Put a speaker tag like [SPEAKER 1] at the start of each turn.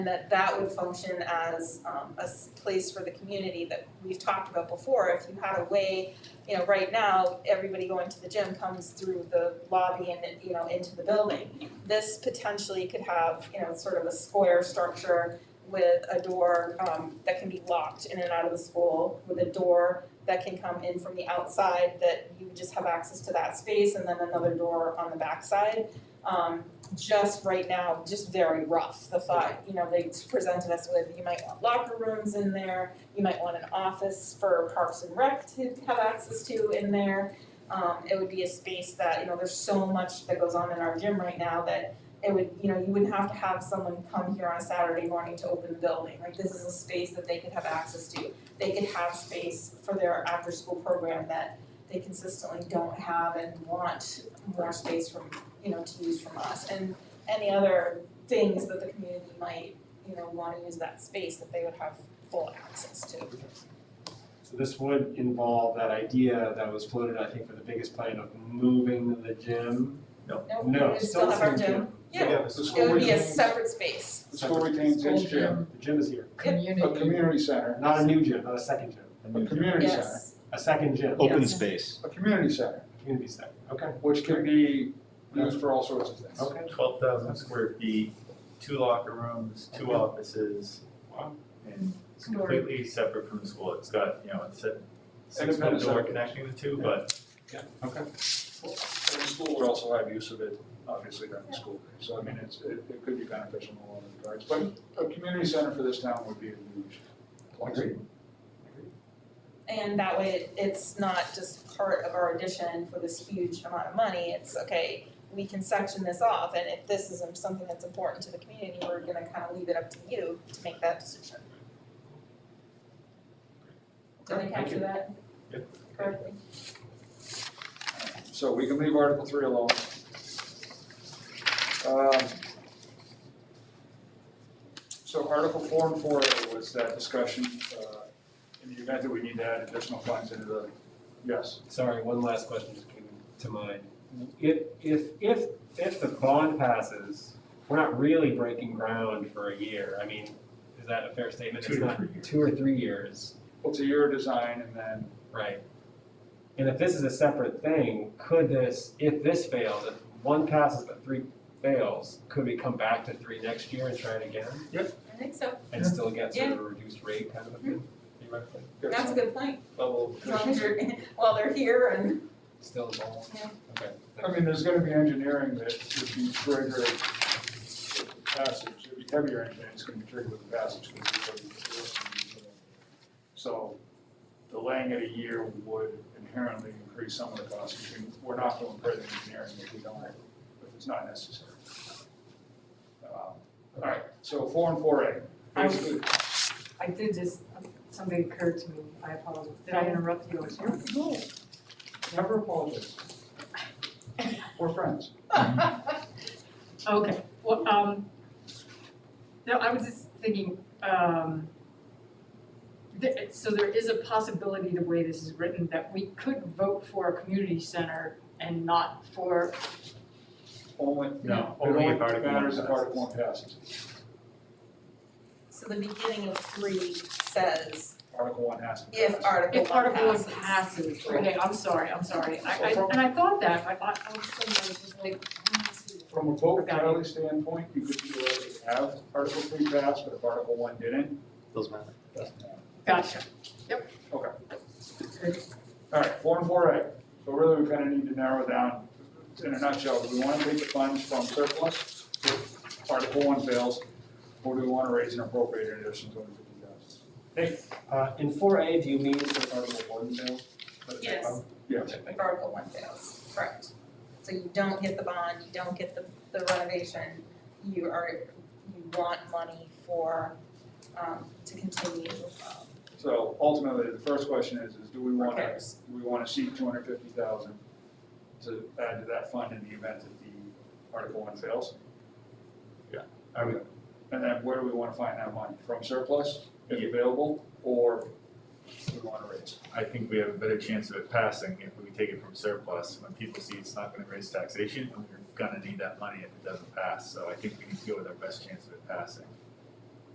[SPEAKER 1] And that that would function as um a s- place for the community that we've talked about before, if you had a way, you know, right now, everybody going to the gym comes through the lobby and then, you know, into the building. This potentially could have, you know, sort of a square structure with a door um that can be locked in and out of the school, with a door that can come in from the outside that you would just have access to that space and then another door on the backside. Um just right now, just very rough, the thought, you know, they presented us with, you might want locker rooms in there, you might want an office for Parks and Rec to have access to in there. Um, it would be a space that, you know, there's so much that goes on in our gym right now that it would, you know, you wouldn't have to have someone come here on a Saturday morning to open the building, like this is a space that they could have access to. They could have space for their after-school program that they consistently don't have and want more space from you know, to use from us and any other things that the community might, you know, wanna use that space that they would have full access to.
[SPEAKER 2] So this would involve that idea that was floated, I think, for the biggest plan of moving the gym.
[SPEAKER 1] No, we
[SPEAKER 2] No,
[SPEAKER 1] would still
[SPEAKER 2] still
[SPEAKER 1] have
[SPEAKER 2] same
[SPEAKER 1] our
[SPEAKER 2] gym.
[SPEAKER 1] gym, yeah,
[SPEAKER 3] the
[SPEAKER 1] it
[SPEAKER 3] school
[SPEAKER 1] would be a
[SPEAKER 3] retains,
[SPEAKER 1] separate space,
[SPEAKER 3] the school retains its gym,
[SPEAKER 2] The gym is here,
[SPEAKER 3] a community center,
[SPEAKER 2] not a new gym, not a second gym,
[SPEAKER 3] a community center,
[SPEAKER 1] yes,
[SPEAKER 2] a second gym,
[SPEAKER 4] Open space.
[SPEAKER 3] a community center,
[SPEAKER 2] community center, okay,
[SPEAKER 3] which can be used for all sorts of things.
[SPEAKER 2] okay.
[SPEAKER 5] Twelve thousand square feet, two locker rooms, two offices.
[SPEAKER 2] Wow.
[SPEAKER 5] And
[SPEAKER 1] Story.
[SPEAKER 5] completely separate from the school, it's got, you know, it's a six foot
[SPEAKER 3] Independent
[SPEAKER 5] door
[SPEAKER 3] separate.
[SPEAKER 5] connecting the two, but
[SPEAKER 2] Okay.
[SPEAKER 3] And the school would also have use of it, obviously, during the school day, so I mean, it's, it, it could be beneficial in a lot of regards, but a community center for this town would be a huge plus.
[SPEAKER 2] Agreed.
[SPEAKER 1] and that way it- it's not just part of our addition for this huge amount of money, it's okay, we can section this off, and if this is something that's important to the community, we're gonna kinda leave it up to you to make that decision. Did I
[SPEAKER 2] Okay, thank
[SPEAKER 1] capture
[SPEAKER 2] you.
[SPEAKER 1] that
[SPEAKER 5] Yep.
[SPEAKER 1] correctly?
[SPEAKER 3] So we can leave Article three alone. Um, So Article four and four A was that discussion, uh, in the event that we need to add additional funds into the, yes.
[SPEAKER 2] Sorry, one last question just came to mind. If, if, if, if the bond passes, we're not really breaking ground for a year. I mean, is that a fair statement?
[SPEAKER 5] Two
[SPEAKER 2] It's
[SPEAKER 5] to
[SPEAKER 2] not
[SPEAKER 5] three years.
[SPEAKER 2] Two or three years,
[SPEAKER 3] It's a year of design and then,
[SPEAKER 2] right? And if this is a separate thing, could this, if this fails, if one passes but three fails, could we come back to three next year and try it again?
[SPEAKER 1] I think so,
[SPEAKER 2] And still get sort of a reduced rate kind of a thing, theoretically?
[SPEAKER 3] there's
[SPEAKER 1] that's a
[SPEAKER 3] some
[SPEAKER 1] good point,
[SPEAKER 3] level
[SPEAKER 1] Mm-hmm. as
[SPEAKER 3] of.
[SPEAKER 1] long as you're, while they're here and,
[SPEAKER 2] Still involved?
[SPEAKER 1] Yeah.
[SPEAKER 2] Okay.
[SPEAKER 3] I mean, there's gonna be engineering that would be triggered with the passage, it'd be heavier engineering, it's gonna be triggered with the passage. because it's already enforced and, uh, So delaying it a year would inherently increase some of the costs, which we- we're not doing further engineering if we don't, if it's not necessary. Um, All right, so four and four A,
[SPEAKER 6] I-
[SPEAKER 3] basically,
[SPEAKER 6] I did just, something occurred to me, I apologize, did I interrupt you or something?
[SPEAKER 3] no, never apologize. We're friends.
[SPEAKER 6] Okay, well, um, no, I was just thinking, um, th- so there is a possibility, the way this is written, that we could vote for a community center and not for,
[SPEAKER 3] Only,
[SPEAKER 5] No,
[SPEAKER 3] it
[SPEAKER 5] only
[SPEAKER 3] only
[SPEAKER 5] if Article one
[SPEAKER 3] matters if
[SPEAKER 5] passes.
[SPEAKER 3] Article one passes.
[SPEAKER 1] so the beginning of three says
[SPEAKER 3] Article one has to pass.
[SPEAKER 1] if Article
[SPEAKER 6] if
[SPEAKER 1] one
[SPEAKER 6] Article
[SPEAKER 1] passes.
[SPEAKER 6] one passes, okay, I'm sorry, I'm sorry, I, I, and I thought that, but I, I was suddenly I was just like, I don't see it.
[SPEAKER 3] From a vote tally standpoint, you could theoretically have Article three pass, but if Article one didn't,
[SPEAKER 4] Doesn't matter.
[SPEAKER 3] it doesn't matter.
[SPEAKER 6] gotcha,
[SPEAKER 3] All right, four and four A, so really we kind of need to narrow down, in a nutshell, do we want to take the funds from surplus if Article one fails? Or do we want to raise and appropriate an additional two hundred fifty thousand?
[SPEAKER 2] Uh, in four A, do you mean for Article one, Bill?
[SPEAKER 1] Yes.
[SPEAKER 3] Yes,
[SPEAKER 1] If Article one fails, correct. So you don't get the bond, you don't get the, the renovation, you are, you want money for, um, to continue, um,
[SPEAKER 3] so ultimately, the first question is, is do we want to,
[SPEAKER 1] repairs.
[SPEAKER 3] do we want to seek two hundred fifty thousand to add to that fund in the event that the Article one fails?
[SPEAKER 5] I would,
[SPEAKER 3] And then where do we wanna find that money? From surplus, if available, or we wanna raise?
[SPEAKER 5] I think we have a better chance of it passing if we take it from surplus. When people see it's not gonna raise taxation, and we're gonna need that money if it doesn't pass, so I think we need to go with our best chance of it passing.